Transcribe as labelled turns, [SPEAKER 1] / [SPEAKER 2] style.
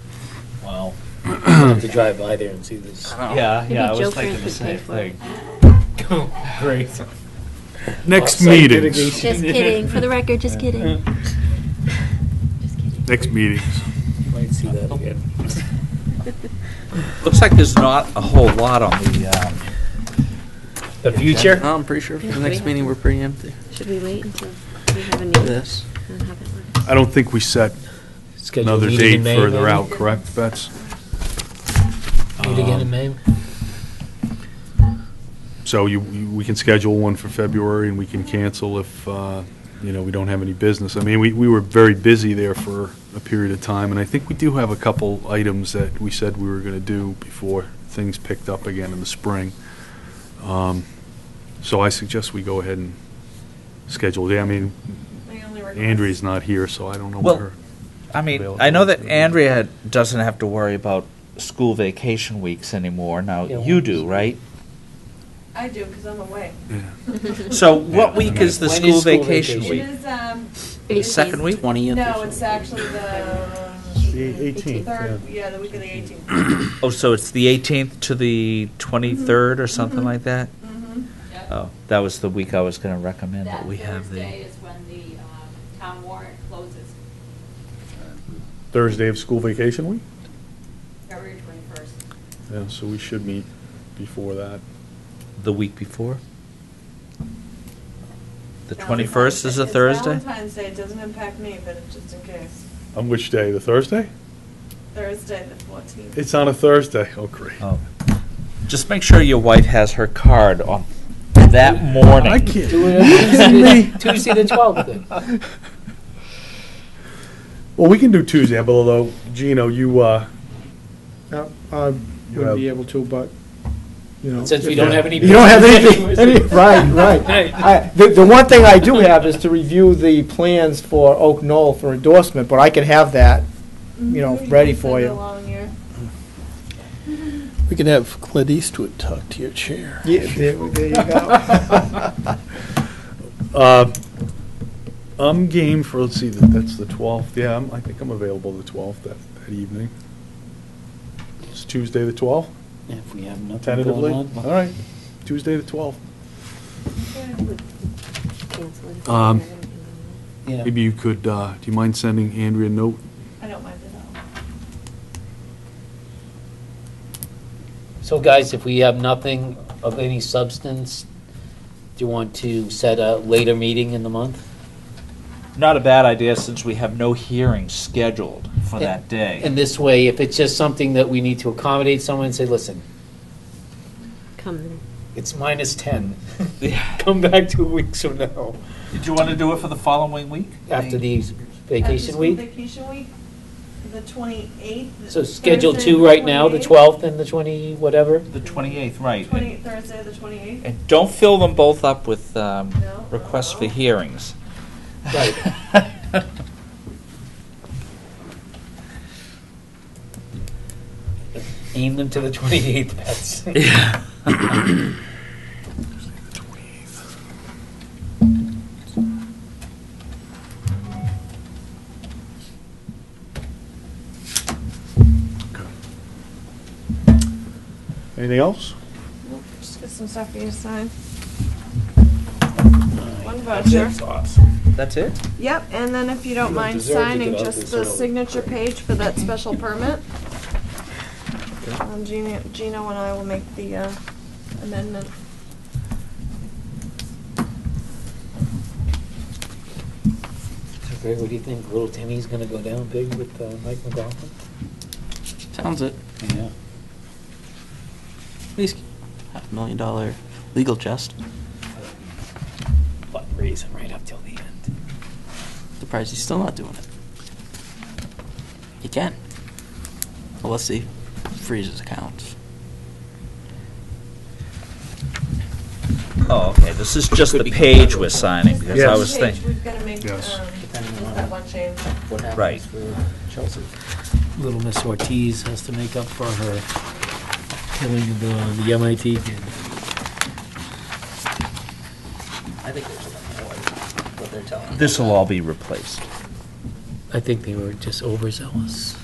[SPEAKER 1] Wow.
[SPEAKER 2] to drive by there and see this.
[SPEAKER 1] Yeah,
[SPEAKER 3] Maybe
[SPEAKER 1] yeah, I
[SPEAKER 3] Joe
[SPEAKER 1] was thinking
[SPEAKER 3] Frank
[SPEAKER 1] the
[SPEAKER 3] would pay
[SPEAKER 1] same
[SPEAKER 3] for it.
[SPEAKER 1] thing. Great.
[SPEAKER 4] Next
[SPEAKER 2] Offsite
[SPEAKER 4] meetings,
[SPEAKER 2] mitigation.
[SPEAKER 3] Just kidding, for the record, just kidding. Just kidding.
[SPEAKER 4] next meetings.
[SPEAKER 2] Might see that again.
[SPEAKER 5] Looks like there's not a whole lot on the, um,
[SPEAKER 2] The future?
[SPEAKER 6] No, I'm pretty sure for the next meeting, we're pretty empty.
[SPEAKER 3] Should we wait until we have a new?
[SPEAKER 6] This.
[SPEAKER 3] and have it
[SPEAKER 4] I don't think we set
[SPEAKER 2] Schedule a
[SPEAKER 4] another
[SPEAKER 2] meeting in
[SPEAKER 4] date
[SPEAKER 2] May,
[SPEAKER 4] further
[SPEAKER 2] maybe?
[SPEAKER 4] out, correct, Bets?
[SPEAKER 2] Meet
[SPEAKER 4] Uh,
[SPEAKER 2] again in May?
[SPEAKER 4] So you, you- we can schedule one for February, and we can cancel if, uh, you know, we don't have any business. I mean, we, we were very busy there for a period of time, and I think we do have a couple items that we said we were going to do before things picked up again in the spring. Um, So I suggest we go ahead and schedule, yeah, I mean, Andrea's not here, so I don't know
[SPEAKER 5] Well,
[SPEAKER 4] what her.
[SPEAKER 5] I mean,
[SPEAKER 4] Available
[SPEAKER 5] I know that
[SPEAKER 4] for-
[SPEAKER 5] Andrea had- doesn't have to worry about school vacation weeks anymore. Now,
[SPEAKER 2] Yeah,
[SPEAKER 5] you
[SPEAKER 2] well-
[SPEAKER 5] do, right?
[SPEAKER 7] I do, because I'm away.
[SPEAKER 5] So what
[SPEAKER 4] Yeah, I
[SPEAKER 5] week
[SPEAKER 4] mean-
[SPEAKER 5] is the
[SPEAKER 2] When
[SPEAKER 5] school
[SPEAKER 2] is school
[SPEAKER 5] vacation
[SPEAKER 2] vacation?
[SPEAKER 7] It
[SPEAKER 5] week?
[SPEAKER 7] is, um,
[SPEAKER 5] The
[SPEAKER 3] on?
[SPEAKER 5] second week?
[SPEAKER 6] Twentieth.
[SPEAKER 7] no, it's actually the.
[SPEAKER 3] Eighteenth,
[SPEAKER 7] Third, yeah, the week of the eighteenth.
[SPEAKER 5] Oh, so it's the 18th to the 23rd or something like that?
[SPEAKER 7] Mm-hmm.
[SPEAKER 5] Oh, that was the week I was going to recommend,
[SPEAKER 8] That
[SPEAKER 5] but we have
[SPEAKER 8] Thursday
[SPEAKER 5] the,
[SPEAKER 8] is when the um, town warrant closes,
[SPEAKER 4] Thursday of school vacation week?
[SPEAKER 8] February 21st.
[SPEAKER 4] Yeah, so we should meet before that.
[SPEAKER 5] the week before? The 21st is a Thursday?
[SPEAKER 7] It's Valentine's Day, it doesn't impact me, but it's just in case.
[SPEAKER 4] On which day, the Thursday?
[SPEAKER 7] Thursday, the fourteenth.
[SPEAKER 4] It's on a Thursday, oh, great.
[SPEAKER 5] Oh. Just make sure your wife has her card on that morning.
[SPEAKER 4] I can't.
[SPEAKER 2] Do it on Tuesday, Tuesday the 12th then.
[SPEAKER 4] Well, we can do Tuesday, but although, Gino, you, uh,
[SPEAKER 9] Yeah, I wouldn't be able to, but, you know.
[SPEAKER 2] Since we
[SPEAKER 9] if-
[SPEAKER 2] don't have any.
[SPEAKER 9] You don't have anything, any, right,
[SPEAKER 2] Right.
[SPEAKER 9] right. I, the, the one thing I do have is to review the plans for Oak Knoll for endorsement, but I can have that. you
[SPEAKER 7] Mm-hmm.
[SPEAKER 9] know, ready for you.
[SPEAKER 10] We could have Clint Eastwood talk to your chair.
[SPEAKER 9] Yeah, there, there you go.
[SPEAKER 4] uh, I'm game for, let's see, that- that's the 12th, yeah, I'm- I think I'm available the 12th that, that evening. It's Tuesday, the 12th,
[SPEAKER 2] If we have nothing
[SPEAKER 4] tentatively?
[SPEAKER 2] going
[SPEAKER 4] All
[SPEAKER 2] on.
[SPEAKER 4] right, Tuesday, the 12th.
[SPEAKER 3] Cancel it.
[SPEAKER 4] Um,
[SPEAKER 2] Yeah.
[SPEAKER 4] Maybe you could, uh, do you mind sending Andrea a note?
[SPEAKER 7] I don't mind at all.
[SPEAKER 2] So guys, if we have nothing of any substance, do you want to set a later meeting in the month?
[SPEAKER 5] Not a bad idea, since we have no hearings scheduled for
[SPEAKER 2] Yeah.
[SPEAKER 5] that day.
[SPEAKER 2] And this way, if it's just something that we need to accommodate someone, say, listen,
[SPEAKER 3] Come then.
[SPEAKER 2] it's minus 10.
[SPEAKER 5] Yeah.
[SPEAKER 2] Come back two weeks from now,
[SPEAKER 5] Did you want to do it for the following week?
[SPEAKER 2] after the vacation week.
[SPEAKER 7] Uh, Vacation week, the twenty-eighth.
[SPEAKER 2] So schedule two right now, the 12th and the 20, whatever.
[SPEAKER 5] The 28th, right.
[SPEAKER 7] Twenty, Thursday, the twenty-eighth.
[SPEAKER 5] And don't fill them both up with um,
[SPEAKER 7] No.
[SPEAKER 5] requests for hearings.
[SPEAKER 2] Right. Aim them to the 28th, that's.
[SPEAKER 4] Anything else?
[SPEAKER 7] Just get some stuff for you to sign. One voucher.
[SPEAKER 5] That's That's it?
[SPEAKER 7] Yep, and then if you don't mind
[SPEAKER 2] deserve to
[SPEAKER 7] signing
[SPEAKER 2] get out
[SPEAKER 7] just
[SPEAKER 2] this
[SPEAKER 7] the
[SPEAKER 2] early.
[SPEAKER 7] signature page for that special permit. Um, Gina, Gino and I will make the uh, amendment.
[SPEAKER 2] Greg, what do you think? Little Timmy's gonna go down big with uh, Mike McGoffin?
[SPEAKER 6] Sounds it.
[SPEAKER 2] Yeah.
[SPEAKER 6] At least half a million dollar legal chest.
[SPEAKER 2] But raise him right up till the end.
[SPEAKER 6] Surprised he's still not doing it. He can. Unless he freezes accounts.
[SPEAKER 5] Oh, okay, this is just the page we're signing, because I
[SPEAKER 4] Yes.
[SPEAKER 5] was
[SPEAKER 7] Page,
[SPEAKER 5] thinking,
[SPEAKER 7] We've got to make, um,
[SPEAKER 4] Yes.
[SPEAKER 2] Depending
[SPEAKER 7] just
[SPEAKER 2] on-
[SPEAKER 7] that one change.
[SPEAKER 2] What
[SPEAKER 5] Right.
[SPEAKER 2] happens for Chelsea? Little Miss Ortiz has to make up for her killing the, the MIT kid.
[SPEAKER 6] I think there's enough noise, what they're telling.
[SPEAKER 5] this will all be replaced.
[SPEAKER 2] I think they were just overzealous.